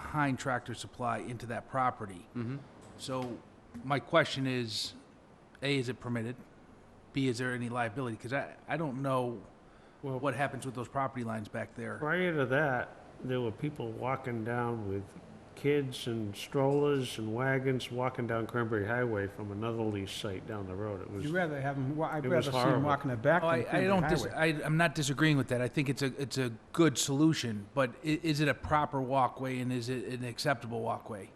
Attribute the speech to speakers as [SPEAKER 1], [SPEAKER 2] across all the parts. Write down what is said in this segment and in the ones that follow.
[SPEAKER 1] behind Tractor Supply into that property. So my question is, A, is it permitted? B, is there any liability? Because I, I don't know
[SPEAKER 2] Well-
[SPEAKER 1] what happens with those property lines back there.
[SPEAKER 2] Prior to that, there were people walking down with kids and strollers and wagons walking down Cranberry Highway from another lease site down the road. It
[SPEAKER 3] You'd
[SPEAKER 2] was,
[SPEAKER 3] rather have them, I'd
[SPEAKER 2] It
[SPEAKER 3] rather
[SPEAKER 2] was
[SPEAKER 3] see them
[SPEAKER 2] horrible.
[SPEAKER 3] walking the back
[SPEAKER 1] Oh,
[SPEAKER 3] than
[SPEAKER 1] I, I
[SPEAKER 3] Cranberry
[SPEAKER 1] don't, dis-
[SPEAKER 3] Highway.
[SPEAKER 1] I, I'm not disagreeing with that. I think it's a, it's a good solution, but i- is it a proper walkway and is it an acceptable walkway?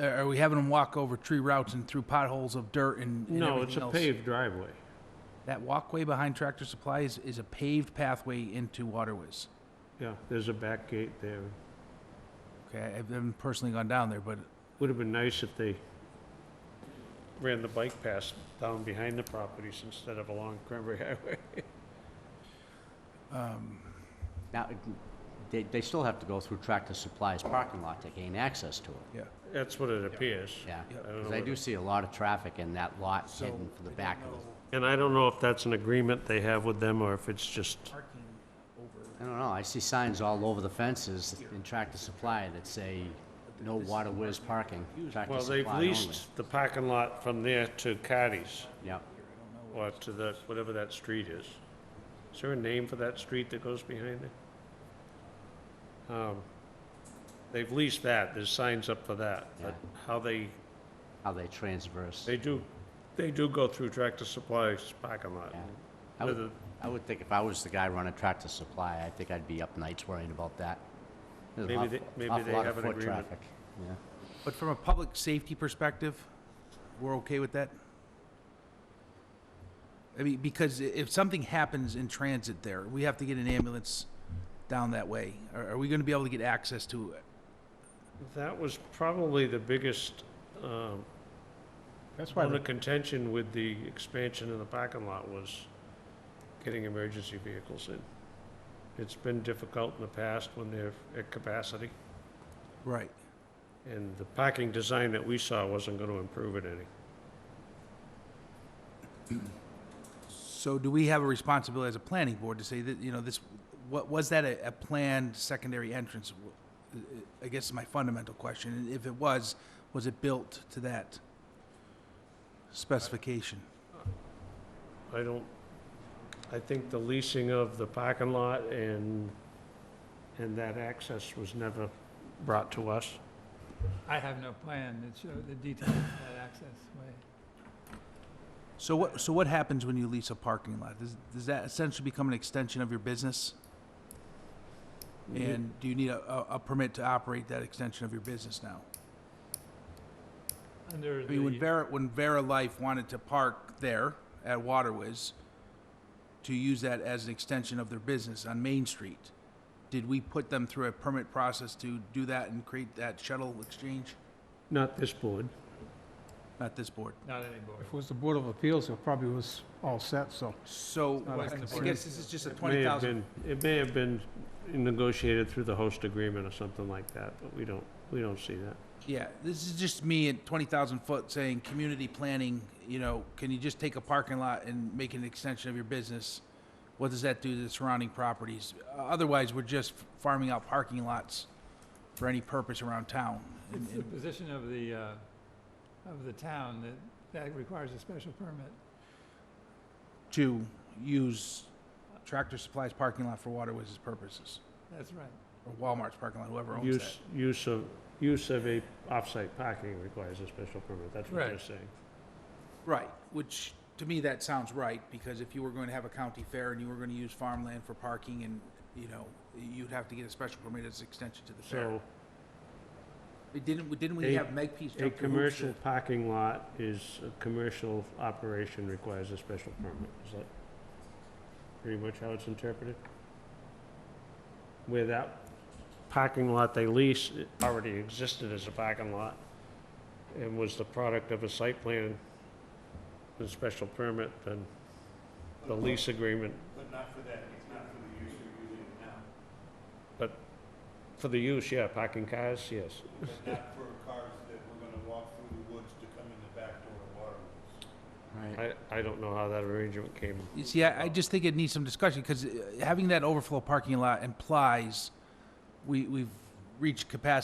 [SPEAKER 1] Uh, Are we having them walk over tree routes and through potholes of dirt and and
[SPEAKER 2] no, it's
[SPEAKER 1] everything
[SPEAKER 2] a
[SPEAKER 1] else?
[SPEAKER 2] paved driveway.
[SPEAKER 1] That walkway behind Tractor Supply is, is a paved pathway into Waterways.
[SPEAKER 2] Yeah, there's a back gate there.
[SPEAKER 1] Okay, I haven't personally gone down there, but
[SPEAKER 2] Would have been nice if they ran the bike path down behind the properties instead of along Cranberry Highway.
[SPEAKER 4] Now, they, they still have to go through Tractor Supply's parking lot to gain access to it,
[SPEAKER 1] yeah.
[SPEAKER 2] That's what it appears.
[SPEAKER 4] yeah.
[SPEAKER 2] I don't know
[SPEAKER 4] Because I do
[SPEAKER 2] whether-
[SPEAKER 4] see a lot of traffic in that lot
[SPEAKER 1] So,
[SPEAKER 4] hidden for
[SPEAKER 1] I
[SPEAKER 4] the
[SPEAKER 1] don't
[SPEAKER 4] back of
[SPEAKER 1] know
[SPEAKER 4] the,
[SPEAKER 2] And I don't know if that's an agreement they have with them or if it's just,
[SPEAKER 1] Parking over,
[SPEAKER 4] I don't know, I see signs all over the fences in Tractor Supply that say, no water whiz parking, Tractor
[SPEAKER 2] well,
[SPEAKER 4] Supply
[SPEAKER 2] they've
[SPEAKER 4] only.
[SPEAKER 2] leased the parking lot from there to Cardi's.
[SPEAKER 4] Yep,
[SPEAKER 2] Or to the, whatever that street is. Is there a name for that street that goes behind it? Um, They've leased that, there's signs up for that, but how they,
[SPEAKER 4] how they transverse.
[SPEAKER 2] they do, they do go through Tractor Supply's parking lot.
[SPEAKER 4] Yeah. I would,
[SPEAKER 2] Whether-
[SPEAKER 4] I would think if I was the guy running Tractor Supply, I think I'd be up nights worrying about that. There's an
[SPEAKER 2] Maybe
[SPEAKER 4] awful-
[SPEAKER 2] they- maybe
[SPEAKER 4] awful
[SPEAKER 2] they
[SPEAKER 4] lot of
[SPEAKER 2] have an
[SPEAKER 4] foot
[SPEAKER 2] agreement.
[SPEAKER 4] traffic. Yeah.
[SPEAKER 1] But from a public safety perspective, we're okay with that? I mean, because i- if something happens in transit there, we have to get an ambulance down that way. Are, are we gonna be able to get access to it?
[SPEAKER 2] That was probably the biggest, um,
[SPEAKER 3] That's
[SPEAKER 5] Oh,
[SPEAKER 3] why,
[SPEAKER 2] one of
[SPEAKER 3] the-
[SPEAKER 2] contention with the expansion of the parking lot was getting emergency vehicles in. It's been difficult in the past when they're at capacity.
[SPEAKER 1] Right.
[SPEAKER 2] And the parking design that we saw wasn't gonna improve it any.
[SPEAKER 1] So do we have a responsibility as a planning board to say that, you know, this, what, was that a, a planned secondary entrance? I guess is my fundamental question. And if it was, was it built to that specification?
[SPEAKER 2] I don't, I think the leasing of the parking lot and, and that access was never brought to us.
[SPEAKER 5] I have no plan that show the details of that access way.
[SPEAKER 1] So what, so what happens when you lease a parking lot? Does, does that essentially become an extension of your business? And do you need a, a- a permit to operate that extension of your business now?
[SPEAKER 5] Under
[SPEAKER 1] I mean, when
[SPEAKER 5] the,
[SPEAKER 1] Vera, when Vera Life wanted to park there at Waterwiz to use that as an extension of their business on Main Street, did we put them through a permit process to do that and create that shuttle exchange?
[SPEAKER 2] Not this board.
[SPEAKER 1] Not this board.
[SPEAKER 5] not anymore.
[SPEAKER 3] if it was the Board of Appeals, it probably was all set, so.
[SPEAKER 1] So
[SPEAKER 3] not
[SPEAKER 1] I I
[SPEAKER 3] us,
[SPEAKER 1] guess
[SPEAKER 3] it's-
[SPEAKER 1] this is just a
[SPEAKER 2] It may
[SPEAKER 1] twenty
[SPEAKER 2] have
[SPEAKER 1] thousand.
[SPEAKER 2] been, it may have been negotiated through the host agreement or something like that, but we don't, we don't see that.
[SPEAKER 1] Yeah, this is just me at twenty thousand foot saying, community planning, you know, can you just take a parking lot and make an extension of your business? What does that do to the surrounding properties? Uh, Otherwise, we're just farming out parking lots for any purpose around town. And-
[SPEAKER 5] It's the
[SPEAKER 1] and-
[SPEAKER 5] position of the, uh, of the town that that requires a special permit.
[SPEAKER 1] To use Tractor Supply's parking lot for Waterways' purposes,
[SPEAKER 5] That's right.
[SPEAKER 1] or Walmart's parking lot, whoever owns that.
[SPEAKER 2] Use, use of, use of a off-site parking requires a special permit, that's what they're
[SPEAKER 5] Right.
[SPEAKER 2] saying.
[SPEAKER 1] Right, which, to me, that sounds right, because if you were going to have a county fair and you were gonna use farmland for parking and, you know, you'd have to get a special permit as an extension to the fair.
[SPEAKER 2] So
[SPEAKER 1] We Didn't, we- didn't we
[SPEAKER 2] A-
[SPEAKER 1] have Meg Pete's
[SPEAKER 2] a
[SPEAKER 1] jump through hoops
[SPEAKER 2] commercial
[SPEAKER 1] to-
[SPEAKER 2] parking lot is, a commercial operation requires a special permit. Is that pretty much how it's interpreted? Where that parking lot they lease it already existed as a parking lot and was the product of a site plan and special permit, then the lease agreement. But not for that, it's not for the use you're using now. But for the use, yeah, parking cars, yes.
[SPEAKER 6] but not for cars that we're gonna walk through the woods to come in the back door of Waterways.
[SPEAKER 4] Right.
[SPEAKER 2] I, I don't know how that arrangement came.
[SPEAKER 1] You see, I, I just think it needs some discussion, uh, because having that overflow parking lot implies we, we've reached capacity